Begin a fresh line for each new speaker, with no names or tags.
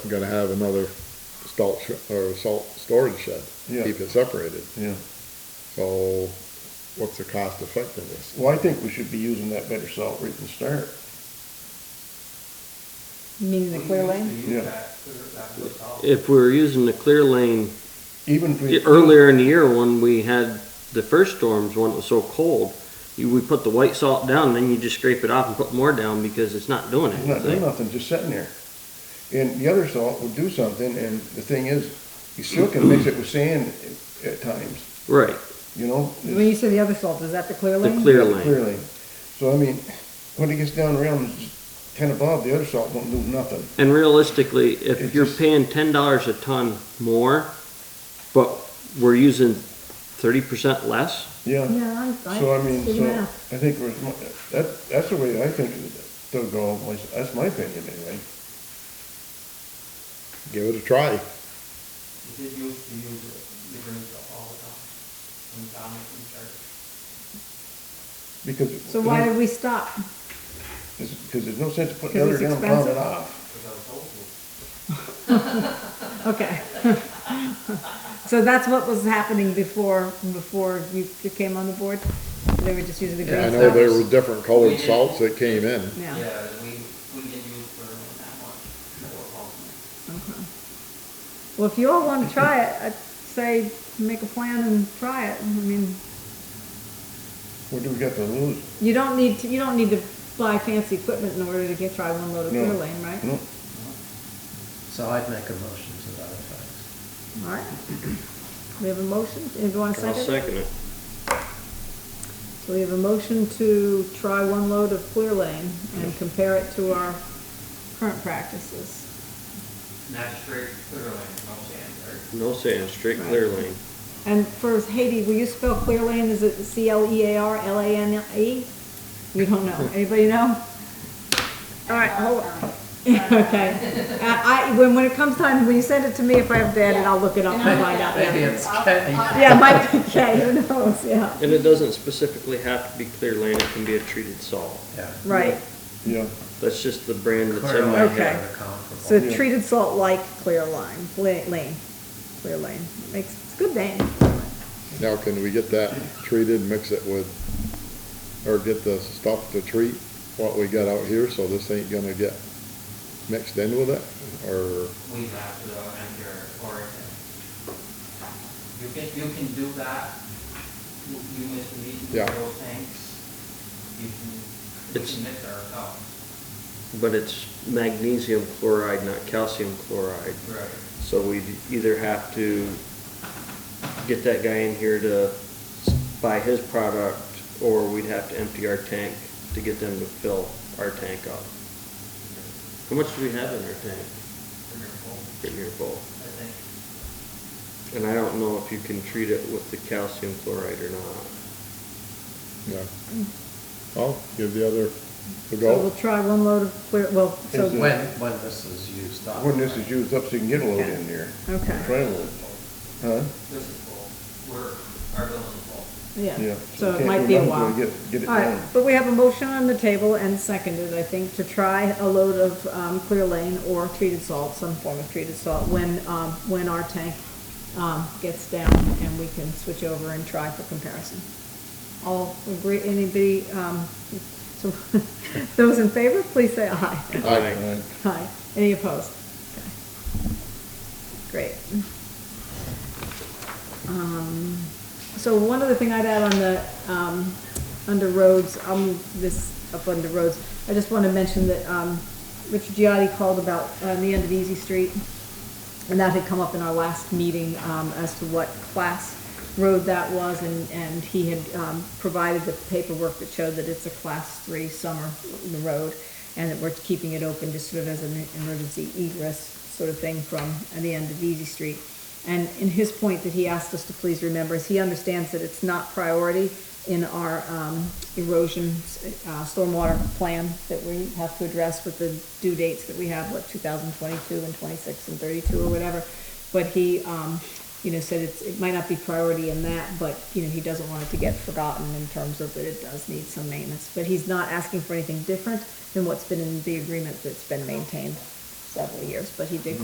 gonna have another salt, sh- or salt storage shed.
Yeah.
Keep it separated.
Yeah,
So what's the cost effectiveness?
well, I think we should be using that better salt right from the start.
Meaning the clear lane?
Yeah.
If we were using the clear lane
Even if we.
earlier in the year when we had the first storms, when it was so cold, you, we put the white salt down, and then you just scrape it off and put more down because it's not doing
It's not doing
anything.
nothing, just sitting there. And the other salt will do something, and the thing is, you still can mix it with sand at- at times,
Right,
you know? It's-
When you say the other salt, is that the clear
the
lane?
clear
Yeah,
lane.
Clearly. So I mean, when it gets down around ten above, the other salt won't do nothing.
And realistically, if
It
you're
just-
paying ten dollars a ton more, but we're using thirty percent less,
Yeah.
Yeah, I, I
So I mean,
see
so
that.
I think we're, that, that's the way I think it'll go. my- That's my opinion anyway.
Give it a try.
You did use to use it, you bring it all the time, from down in church.
Because.
So why did we stop?
Because there's no sense putting the
Because
other
it's
down and pounding
expensive?
off.
Okay. So that's what was happening before, before you you came on the board? They were just using the
I
green
know there
salt?
were different colored salts that came in.
Yeah,
Yeah, we, we did use for that much, for all.
well, if you all wanna try it, I'd say make a plan and try it. I mean,
What do we got to lose?
you don't need to, you don't need to buy fancy equipment in order to get, try one load of
No.
clear lane, right?
No,
So I'd make a motion to that effect.
All right. We have a motion, anyone
I'll second it.
So we have a motion to try one load of Clear Lane and compare it to our current practices.
Not straight, clearly, no sand, right?
No sand, straight clear lane.
And first, Haiti, will you spell Clear Lane, is it E C-L-E-A-R-L-A-N-E? E? You don't know, anybody know? All right, hold on. Okay. Uh, I, I- when, when it comes time, when you send it to me, if I have that, and I'll look it up and find out.
Maybe
Yeah,
it's K.
Yeah, it might be K, who knows, yeah,
And it doesn't specifically have to be clear lane, it can be a treated salt.
Yeah.
right.
yeah,
That's just the brand that's
Clear
in my
line
Okay.
head.
is comparable.
So treated salt like Clear Lime, la- Lane, Clear Lane, makes, it's a good name.
Now, can we get that treated, mix it with, or get the stuff to treat what we got out here, so this ain't gonna get mixed in with it, or?
We have to enter origin. You can, you can do that, you, you miss the meeting,
Yeah.
those things, you can, we
It's-
can mix ourselves.
But it's magnesium chloride, not calcium chloride.
Right.
So we'd either have to get that guy in here to s- buy his product, or we'd have to empty our tank to get them to fill our tank up. How much do we have in our tank?
Three or four,
Pretty near full.
I think.
And I don't know if you can treat it with the calcium chloride or not.
Yeah. Well, give the other a
Mm. So we'll
go.
try one load of clear, well, so,
Is
When, when this is used up.
when this is used up, so you can get a load in there.
okay,
Try a load. Huh?
This is full, we're, our building's full.
yeah,
Yeah.
so it
can't
might
do
be a
nothing till
while.
we Get, get it
All right,
done.
but we have a motion on the table and seconded, I think, to try a load of, um, clear lane or treated salt, some form of treated salt, when, um, when our tank, um, gets down and we can switch over and try for comparison. All agree, anybody, um, so, those in favor, please say aye.
Aye.
Alright.
Aye. Any opposed? Okay. Great. Um, So one other thing I'd add on the, um, under roads, um, this up under roads, I just want to mention that, um, Richard Giotti called about, uh, the end of Easy Street. And that had come up in our last meeting um, as to what class road that was, and, and he had um, provided the paperwork that showed that it's a class three summer road, and that we're keeping it open just sort of as an emergency egress sort of thing from the end of Easy Street. And in his point that he asked us to please remember is he understands that it's not priority in our um, erosion, uh, stormwater plan that we have to address with the due dates that we have, what, 2022 and 26 and 32 or whatever. But he, um, you know, said it's, it might not be priority in that, but, you know, he doesn't want it to get forgotten in terms of that it does need some maintenance. But he's not asking for anything different than what's been in the agreement that's been maintained several years, but he did